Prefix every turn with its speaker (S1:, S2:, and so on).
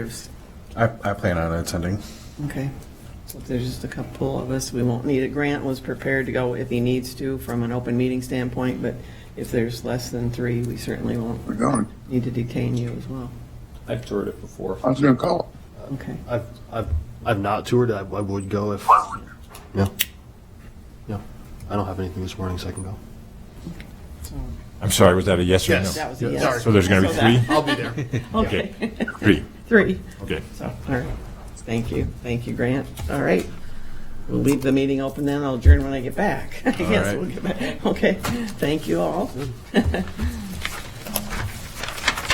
S1: I, I plan on attending.
S2: Okay. So if there's just a couple of us, we won't need it. Grant was prepared to go if he needs to from an open meeting standpoint, but if there's less than three, we certainly won't
S3: We're going.
S2: need to detain you as well.
S4: I've toured it before.
S3: I was gonna call.
S2: Okay.
S5: I've, I've, I've not toured. I, I would go if. Yeah. Yeah. I don't have anything this morning, so I can go.
S2: So
S6: I'm sorry, was that a yes or no?
S5: Yes.
S2: That was a
S5: Yes.
S2: yes.
S6: So there's going to be three?
S5: I'll be there.
S6: Okay, three,
S2: Three.
S6: okay.
S2: So, all right. Thank you. Thank you, Grant. All right. We'll leave the meeting open then. I'll adjourn when I get back. I guess
S6: right.
S2: we'll get back. Okay. Thank you all.